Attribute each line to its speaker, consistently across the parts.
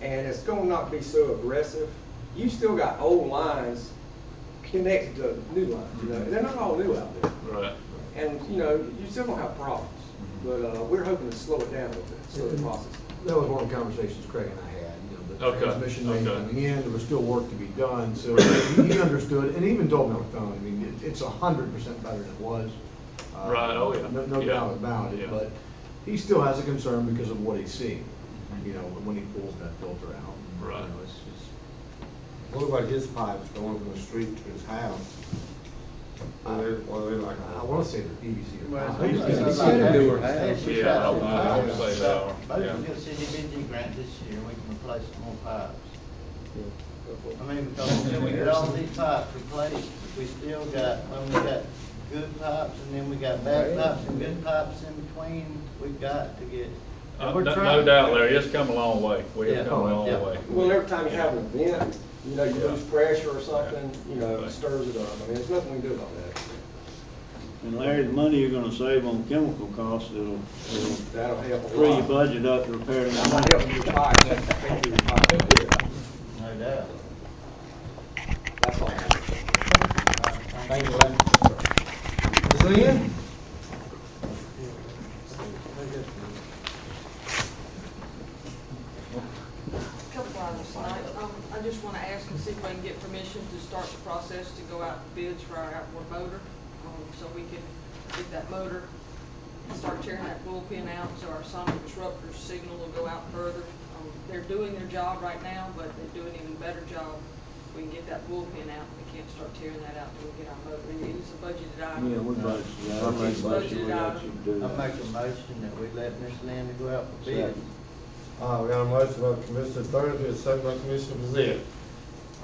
Speaker 1: and it's gonna not be so aggressive. You still got old lines connected to new lines, you know, they're not all new out there.
Speaker 2: Right.
Speaker 1: And, you know, you still gonna have problems, but, uh, we're hoping to slow it down a little bit, slow the process.
Speaker 3: That was one of the conversations Craig and I had, you know, the
Speaker 2: Okay,
Speaker 3: transmission may
Speaker 2: okay.
Speaker 3: not be in, there was still work to be done, so he understood, and even told me on the phone, I mean, it- it's a hundred percent better than it was. Uh,
Speaker 2: Right, oh, yeah.
Speaker 3: No, no
Speaker 2: Yeah.
Speaker 3: doubt about
Speaker 2: Yeah.
Speaker 3: it, but he still has a concern because of what he's seeing, you know, when he pulls that filter out. You
Speaker 2: Right.
Speaker 3: know, it's just-
Speaker 4: What about his pipes going from the street to his house? Are they, are they like,
Speaker 3: I wanna say E they're PVC or.
Speaker 5: Well,
Speaker 3: concrete.
Speaker 5: it's-
Speaker 3: It's
Speaker 5: it's-
Speaker 3: gotta be-
Speaker 5: it's- it's- it's-
Speaker 2: Yeah, I don't- I don't say that one,
Speaker 5: Both
Speaker 2: yeah.
Speaker 5: of them get CDBG grant this year, we can replace some more pipes. I mean, because when we get all these pipes replaced, we still got, when we got good pipes, and then we got bad pipes, and good pipes in between, we've got to get.
Speaker 2: Uh,
Speaker 5: and
Speaker 2: No
Speaker 5: we're
Speaker 2: no
Speaker 5: trying-
Speaker 2: doubt, Larry, it's come a long way. We
Speaker 5: Yeah.
Speaker 2: have come a long
Speaker 5: Yeah.
Speaker 2: way.
Speaker 1: Well, every time you have an event, you know, you lose pressure or something, you know, it stirs it up, I mean, there's nothing we can do about that.
Speaker 6: And Larry, the money you're gonna save on chemical costs, it'll, it'll
Speaker 1: That'll help a
Speaker 6: free your
Speaker 1: lot.
Speaker 6: budget up to repair
Speaker 1: I'm
Speaker 6: that.
Speaker 1: not helping you fight, thank you, fight,
Speaker 5: No doubt.
Speaker 1: that's all.
Speaker 4: thank you, Lynn.
Speaker 3: Is that it?
Speaker 7: Couple items tonight. Um, I just want to ask and see if I can get permission to start the process to go out for bids for our outboard motor. um, So we can get that motor, start tearing that bullpen out, so our sonic disruptor signal will go out further. Um, They're doing their job right now, but they do an even better job. We can get that bullpen out. We can't start tearing that out till we get our motor. It is a budgeted item.
Speaker 6: Yeah, we budgeted that. I make a motion, we let you do
Speaker 5: I
Speaker 6: that.
Speaker 5: make a motion that we let Miss Linda go out for bid.
Speaker 6: Second.
Speaker 4: Uh, we got a motion by Commissioner Thursby, a second by Commissioner Brazil.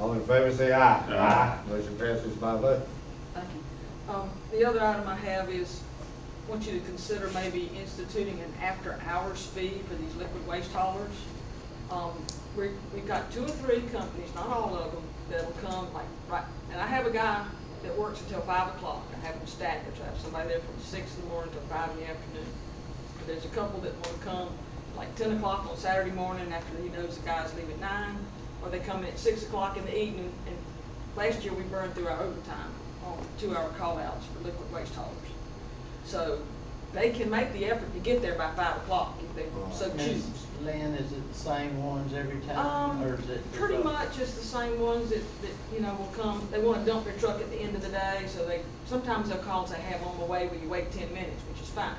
Speaker 4: All in favor, say aye.
Speaker 2: Aye.
Speaker 4: Motion passes by vote.
Speaker 7: Thank you. Um, the other item I have is, want you to consider maybe instituting an after-hours fee for these liquid waste haulers. Um, we, we've got two or three companies, not all of them, that'll come like, right, and I have a guy that works until five o'clock. I have them staggered, so I have somebody there from six in the morning till five in the afternoon. But there's a couple that wanna come like ten o'clock on Saturday morning after he knows the guys leave at nine, or they come in at six o'clock in the evening, and last year we burned through our overtime on two-hour call-outs for liquid waste haulers. So they can make the effort to get there by five o'clock if they so choose.
Speaker 5: Miss Lynn, is it the same ones every time, or
Speaker 7: Um,
Speaker 5: is it?
Speaker 7: pretty much it's the same ones that, that, you know, will come, they wanna dump their truck at the end of the day, so they, sometimes they'll call and say, hey, I'm on my way, will you wait ten minutes, which is fine.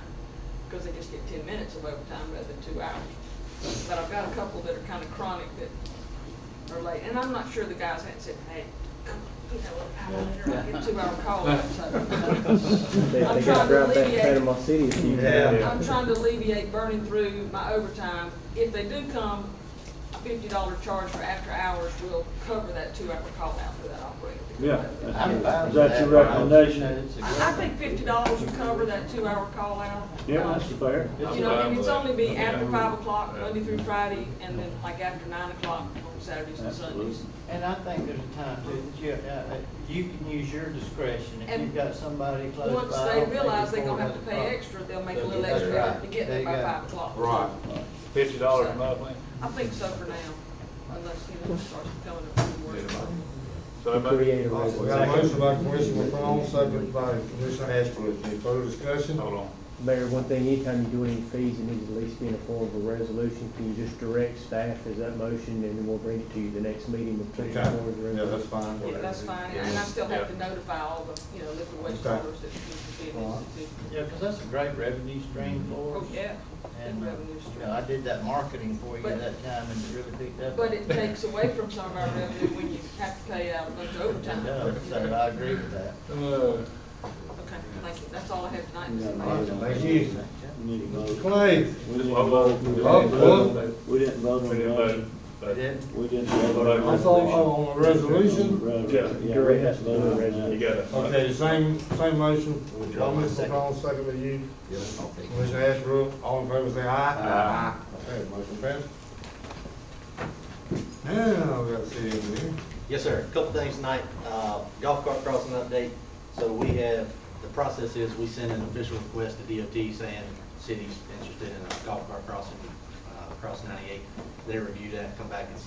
Speaker 7: Cause they just get ten minutes of overtime rather than two hours. But I've got a couple that are kinda chronic that are late, and I'm not sure the guys hadn't said, hey, come on, you know, an hour later, I get a two-hour call out, so.
Speaker 8: They,
Speaker 7: I'm
Speaker 8: they
Speaker 7: trying to
Speaker 8: gotta drive back to
Speaker 7: alleviate-
Speaker 8: Panama City if you.
Speaker 4: Yeah.
Speaker 7: I'm trying to alleviate burning through my overtime. If they do come, a fifty dollar charge for after hours will cover that two hour call out for that operator. to come
Speaker 6: Yeah,
Speaker 7: over there.
Speaker 5: I'm fine
Speaker 6: Is that your
Speaker 5: with but I just
Speaker 6: recommendation?
Speaker 5: know it's a good
Speaker 7: I, I
Speaker 5: one.
Speaker 7: think fifty dollars will cover that two hour call out.
Speaker 6: Yeah, that's
Speaker 7: Um,
Speaker 6: fair.
Speaker 7: You know, and it's only be after
Speaker 2: Yeah.
Speaker 7: five o'clock,
Speaker 2: Yeah.
Speaker 7: Monday through Friday, and then like after nine o'clock on Saturdays and
Speaker 6: Absolutely.
Speaker 7: Sundays.
Speaker 5: And I think there's a time too, that you, uh, you can use your discretion, if you've
Speaker 7: And
Speaker 5: got somebody close by.
Speaker 7: Once
Speaker 5: I
Speaker 7: they
Speaker 5: don't think
Speaker 7: realize
Speaker 5: it's
Speaker 7: they're
Speaker 5: more
Speaker 7: gonna have
Speaker 5: than
Speaker 7: to
Speaker 5: a
Speaker 7: pay
Speaker 5: problem.
Speaker 7: extra, they'll make a little
Speaker 5: That's
Speaker 7: extra effort
Speaker 5: right.
Speaker 7: to get
Speaker 5: There
Speaker 7: there
Speaker 5: you
Speaker 7: by
Speaker 5: go.
Speaker 7: five o'clock.
Speaker 4: Right.
Speaker 2: Fifty dollars a month, man.
Speaker 7: I think so for now, unless, you know, it starts becoming a few worse.
Speaker 2: So, but-
Speaker 8: Create a
Speaker 4: Uh, We
Speaker 8: resident.
Speaker 4: got a motion by Commissioner McCrone, second by Commissioner Ashbrook. Any further discussion?
Speaker 2: Hold on.
Speaker 8: Mayor, one thing, anytime you do any fees, it needs at least be in a form of a resolution. Can you just direct staff as that motion, and then we'll bring it to you the next meeting with
Speaker 4: Okay.
Speaker 8: plenty of forward
Speaker 4: Yeah, that's fine.
Speaker 7: Yeah, that's fine, and I still have to notify all the, you know, liquid waste
Speaker 4: Okay.
Speaker 7: haulers that need to be
Speaker 4: Alright.
Speaker 7: listed.
Speaker 5: Yeah, 'cause that's a great revenue stream for us.
Speaker 7: Oh, yeah,
Speaker 5: And,
Speaker 7: and
Speaker 5: uh,
Speaker 7: revenue
Speaker 5: you know, I
Speaker 7: stream.
Speaker 5: did that marketing for you
Speaker 7: But-
Speaker 5: that time, and it really picked up.
Speaker 7: But it takes away from some of our revenue when you have to pay out a bunch of
Speaker 5: It
Speaker 7: overtime.
Speaker 5: does, so I agree with that.
Speaker 2: Uh,
Speaker 7: Okay, thank you, that's all I have tonight.
Speaker 6: Yeah,
Speaker 7: Mr. Mayor.
Speaker 6: all right.
Speaker 4: Thank you.
Speaker 6: Need a
Speaker 4: Mr.
Speaker 6: vote.
Speaker 4: Clay,
Speaker 6: We didn't
Speaker 2: Well,
Speaker 6: vote.
Speaker 2: well,
Speaker 6: We didn't vote on
Speaker 2: we didn't
Speaker 6: that.
Speaker 2: vote, but-
Speaker 5: It is.
Speaker 6: We didn't vote
Speaker 2: Vote
Speaker 6: on
Speaker 2: on
Speaker 6: that.
Speaker 4: that's all oh, on the resolution.
Speaker 6: Right, right.
Speaker 2: Yeah.
Speaker 6: Yeah, we have to vote on
Speaker 2: You
Speaker 6: that.
Speaker 2: got it.
Speaker 4: Okay, same, same motion. By Mr. McCrone, second by you. Commissioner Ashbrook, all in favor, say aye. Aye. Okay, motion passed. Now, we got to see in here.
Speaker 9: Yes, sir. Couple things tonight, uh, golf cart crossing update. So we have, the process is we send an official request to DOT saying city's interested in a golf cart crossing, uh,
Speaker 5: across ninety-eight, they review that, come back and